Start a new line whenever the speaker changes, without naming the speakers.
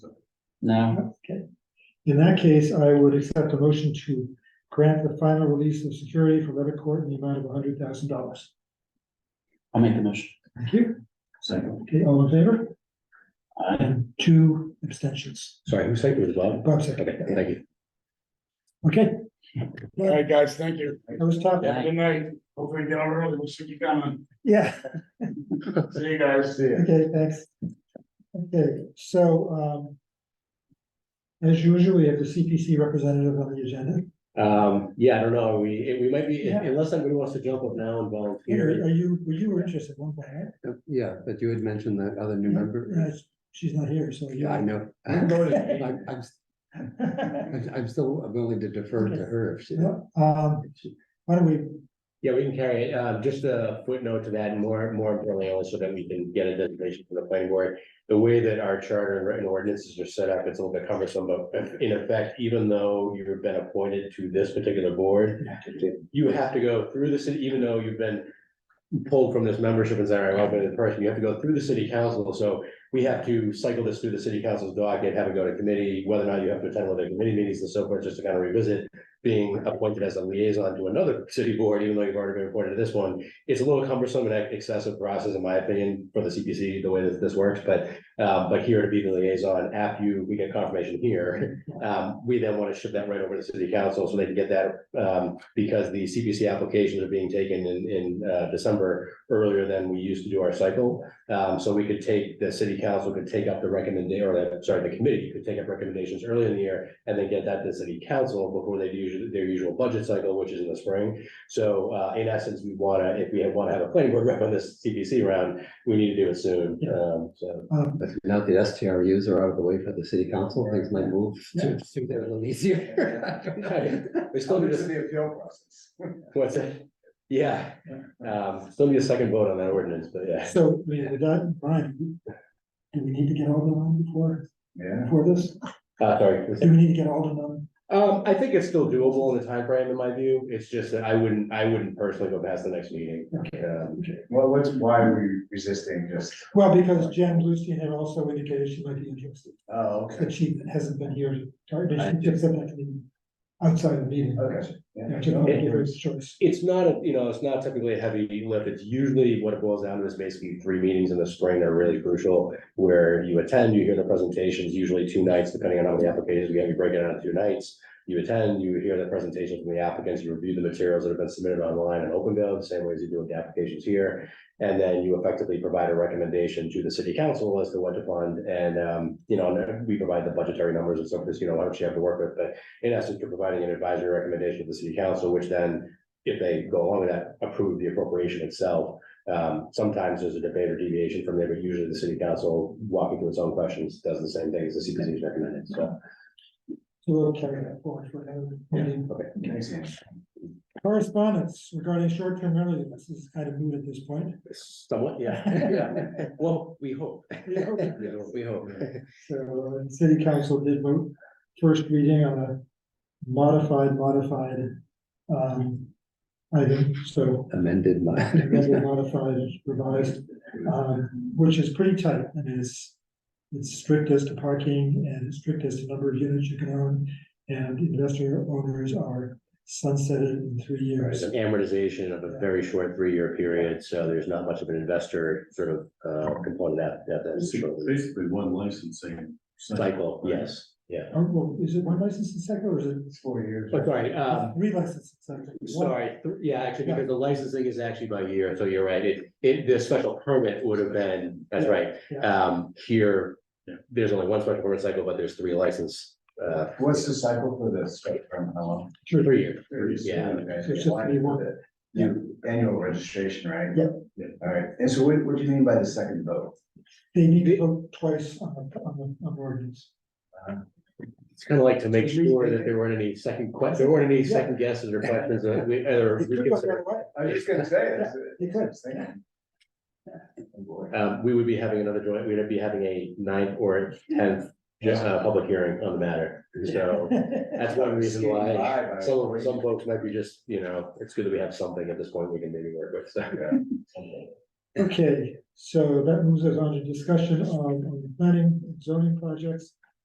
No,
Okay. In that case, I would accept a motion to grant the final release of security for Levitt Court in the amount of hundred thousand dollars.
I'll make the motion.
Thank you.
Second.
Okay, all in favor?
I,
And two abstentions.
Sorry, who seconded it, Bob?
Bob
Okay,
seconded.
thank you.
Okay,
All right, guys, thank you.
that was top.
Yeah.
Good night. Hopefully get out early. We'll see you coming.
Yeah,
See you guys. See
okay, thanks. Okay, so um. As usual, we have the CPC representative on the agenda.
Um, yeah, I don't know, we, we might be,
Yeah.
unless somebody wants to jump up now and volunteer.
Are you, were you interested at one point? right?
Yeah, but you had mentioned that other new
Yeah, She's not here, so. you-
Yeah, I know.
You voted.
I'm, I'm, I'm I'm still willing to defer to her if she.
No, Um, why don't we
Yeah, we can carry it. Uh, just a footnote to that, and more, more importantly, also that we can get a designation from the planning board. The way that our charter and written ordinances are set up, it's a little bit cumbersome, but in effect, even though you've been appointed to this particular board, you have to go through the city, even though you've been pulled from this membership and said, all right, I've been in person, you have to go through the city council, so we have to cycle this through the city council's docket, have it go to committee, whether or not you have to attend one of the committee meetings and so forth, just to kind of revisit being appointed as a liaison to another city board, even though you've already been appointed to this one. It's a little cumbersome and excessive process, in my opinion, for the CPC, the way that this works, but, uh, but here to be the liaison, after you, we get confirmation here. Um, we then want to ship that right over to city council so they can get that, um, because the CPC applications are being taken in, in, uh, December earlier than we used to do our cycle. Um, so we could take, the city council could take up the recommendation, or the, sorry, the committee could take up recommendations early in the year and then get that to city council before they do usually their usual budget cycle, which is in the spring. So uh, in essence, we wanna, if we wanna have a planning board rep on this CPC round, we need to do it soon.
Yeah.
Um, so.
Um,
Now the STRUs are out of the way for the city council, things might move
to-
there a little easier. We still need to,
the appeal process.
what's that? Yeah, um, still need a second vote on that ordinance, but yeah.
So, we, we done, Brian, do we need to get Alden on before,
Yeah.
before this?
Uh, sorry.
Do we need to get Alden on?
Um, I think it's still doable in the time frame, in my view. It's just that I wouldn't, I wouldn't personally go past the next meeting. Um,
Well, what's, why are we resisting just,
Well, because Jen Bluestein had also indicated she might be interested,
oh, okay,
but she hasn't been here, to- or
I-
she took that meeting outside the meeting.
okay.
Yeah,
yeah.
to not give her a choice.
It's not, a you know, it's not typically a heavy lift. It's usually what it boils down to is basically three meetings in the spring are really crucial. Where you attend, you hear the presentations, usually two nights, depending on how many applications we have, you break it out into two nights. You attend, you hear the presentations from the applicants, you review the materials that have been submitted online and OpenGov, the same way as you do with the applications here. And then you effectively provide a recommendation to the city council as to what to fund and, um, you know, and we provide the budgetary numbers and stuff, because you know, how much you have to work with, but in essence, you're providing an advisory recommendation to the city council, which then if they go along with that, approve the appropriation itself. Um, sometimes there's a debate or deviation from there, but usually the city council walking through its own questions does the same thing as the CPC is recommended, so.
So we'll carry that forward for another meeting.
Amazing.
Correspondence regarding short-term rental units, this is kind of moot at this point.
Somewhat, yeah. Well, we hope.
We hope.
We hope.
So uh, city council did vote first reading on a modified, modified um item, so
Amended
amended, modified, revised, um, which is pretty tight and is it's strict as to parking and strict as to number of units you can own and investor owners are sunsetted in three
There's
years.
an amortization of a very short three-year period, so there's not much of an investor sort of, uh, component that, that that's sort of
Basically, one licensing.
cycle, yes, yeah.
Oh, well, is it one license in sector or is it
It's four years.
But sorry, um,
three licenses? in Secco? One-
Sorry, th- yeah, actually, because the licensing is actually by year, so you're right, it, it, the special permit would have been, that's right.
Yeah.
Um, here, there's only one special permit cycle, but there's three license, uh,
What's the cycle for the spectrum, how long?
three years. Yeah.
So it's just
Okay.
be one.
You, annual registration, right?
Yep.
All right, and so what, what do you mean by the second vote?
They need to vote twice on the, on the, on ordinance.
It's kind of like to make sure that there weren't any second que, there weren't any second guesses or questions that we, uh, or
They could vote the
reconsider.
other way.
I was just gonna say. that's it.
You could.
Oh, boy.
Um, we would be having another joint, we'd be having a ninth or tenth, just a public hearing on the matter, so. That's one reason
Skating by,
why
by
some,
three.
some folks might be just, you know, it's good that we have something at this point we can maybe work with, so.
Okay, so that moves us on to discussion on on planning and zoning projects.